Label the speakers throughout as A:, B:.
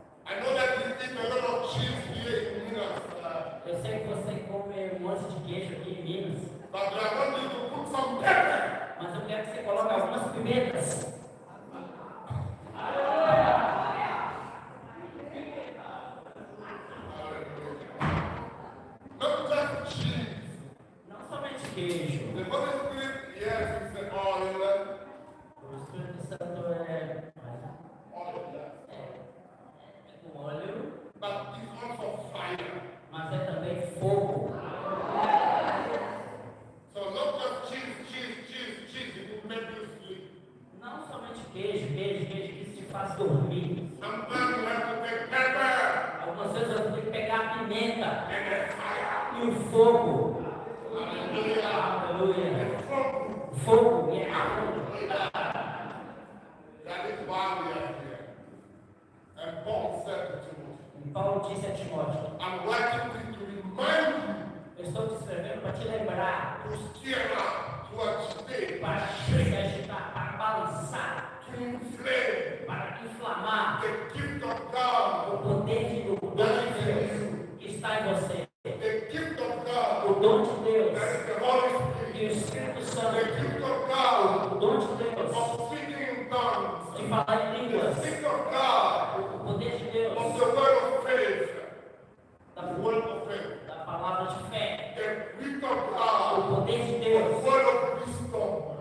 A: um
B: But I want you to put some pepper.
A: Mas eu quero que você coloque algumas pimentas.
B: Not just cheese.
A: Não somente queijo.
B: The Holy Spirit, yes, is the oil.
A: O Espírito Santo é,
B: Oil, yes.
A: é com óleo,
B: But it's also fire.
A: mas é também fogo.
B: So not just cheese, cheese, cheese, cheese. It will make you sleep.
A: Não somente queijo, queijo, queijo, que isso te faz dormir.
B: Sometimes you have to take pepper
A: Algumas vezes eu tenho que pegar a pimenta
B: and the fire.
A: e o fogo.
B: Hallelujah.
A: Aleluia.
B: And from
A: Fogo e água.
B: that is why we are here. And Paul said to Timothy,
A: E Paulo disse a Timóteo:
B: I'm writing this to remind
A: Eu estou te escrevendo para te lembrar,
B: you to stir up, to agitate,
A: para te agitar, para balançar,
B: to inflame
A: para inflamar
B: the gift of God,
A: o poder de Deus que está em você.
B: the gift of God,
A: O dom de
B: that
A: Deus
B: is the Holy Spirit,
A: e o Espírito
B: the
A: Santo.
B: gift of God
A: O dom de Deus
B: of speaking in tongues,
A: de falar em
B: the
A: línguas.
B: gift of God
A: O poder de
B: of
A: Deus
B: the word of faith, the
A: da,
B: word of faith,
A: da palavra de fé.
B: the gift of
A: O
B: God,
A: poder de
B: the
A: Deus
B: word of wisdom,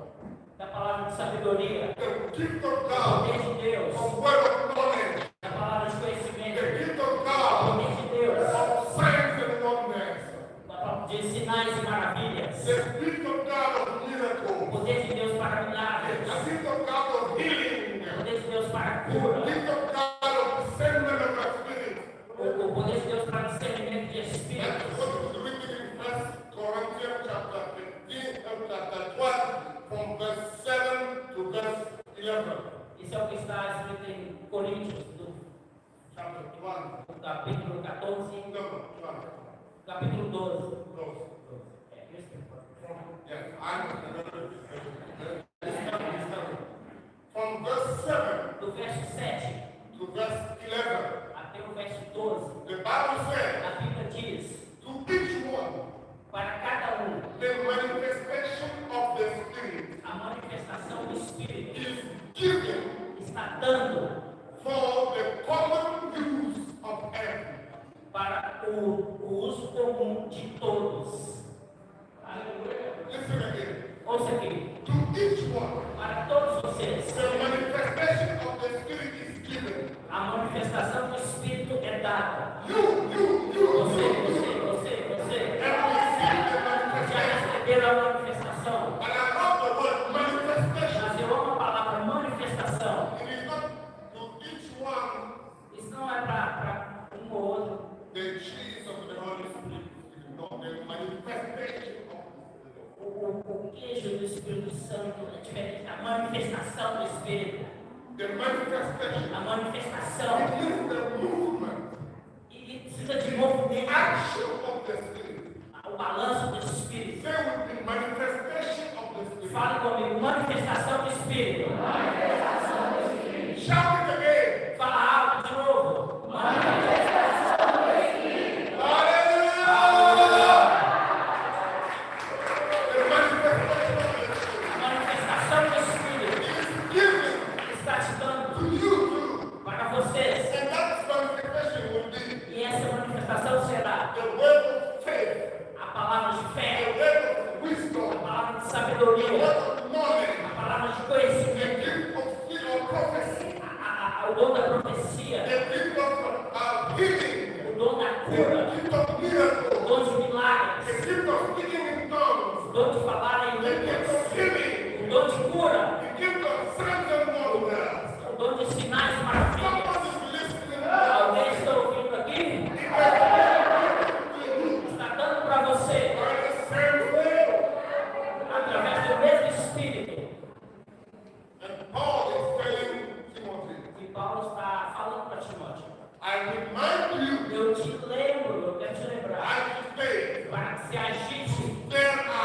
A: da palavra de sabedoria.
B: the gift of
A: O
B: God,
A: poder de
B: the
A: Deus
B: word of knowledge,
A: da palavra de
B: the
A: conhecimento.
B: gift of
A: O
B: God
A: poder de Deus
B: of signs and wonders,
A: da palavra de sinais e maravilhas.
B: the gift of God of miracles.
A: O poder de Deus para
B: I
A: milagres.
B: think of God of healing.
A: O poder de Deus para
B: I
A: cura.
B: think of God of discernment of the spirit.
A: O, o poder de Deus para discernimento de
B: That's
A: espíritos.
B: what is written in First Corinthians chapter 15 and chapter 12 from verse 7 to verse 11.
A: Isso é o que está escrito em Coríntios, do,
B: Chapter 12.
A: do capítulo 14,
B: No, 12.
A: capítulo 12.
B: Close.
A: É, isso que eu falo.
B: Yes, I'm It's coming, it's coming. From verse 7
A: do verso 7
B: to verse 11,
A: até o verso 12,
B: the Bible says,
A: a Bíblia diz:
B: to each one
A: para cada um,
B: the manifestation of the spirit
A: a manifestação do Espírito
B: is given
A: está dando
B: for the common use of everyone.
A: para o, o uso comum de todos. Aleluia.
B: Listen again.
A: Ouça aqui:
B: To each one,
A: para todos vocês,
B: the manifestation of the spirit is given.
A: a manifestação do Espírito é dada.
B: You, you, you,
A: Você,
B: you, you,
A: você, você, É você.
B: have received the
A: Já
B: manifestation.
A: receberam a manifestação.
B: And I love the word manifestation.
A: Mas eu amo a palavra manifestação.
B: It is not to each one
A: Isso não é para um ou outro.
B: the cheese of the Holy Spirit. It is not the manifestation of the Spirit.
A: O, o, o queijo do Espírito Santo é diferente da manifestação do Espírito.
B: The manifestation.
A: A manifestação
B: It is the movement.
A: e, e precisa de movimento.
B: action of the Spirit.
A: O balanço do Espírito.
B: Say with me, manifestation of the Spirit.
A: Fale comigo, manifestação do Espírito.
B: Shout it again.
A: Fala alto de novo.
B: Hallelujah. The manifestation of
A: A manifestação do Espírito
B: the Spirit is given
A: está te dando
B: to you too.
A: para vocês.
B: And that manifestation will be
A: E essa manifestação será
B: the word of faith,
A: a palavra de
B: the
A: fé,
B: word of
A: a
B: wisdom,
A: palavra de
B: the
A: sabedoria,
B: word of knowledge,
A: a palavra de
B: the
A: conhecimento,
B: gift of skill or prophecy,
A: a- a- a- o dom da profecia,
B: the gift of uh, healing,
A: o dom da cura,
B: the gift of
A: o
B: miracles,
A: dom de
B: the
A: milagres,
B: gift of speaking in tongues.
A: o dom de falar em
B: The gift
A: línguas,
B: of healing,
A: o dom de
B: the
A: cura,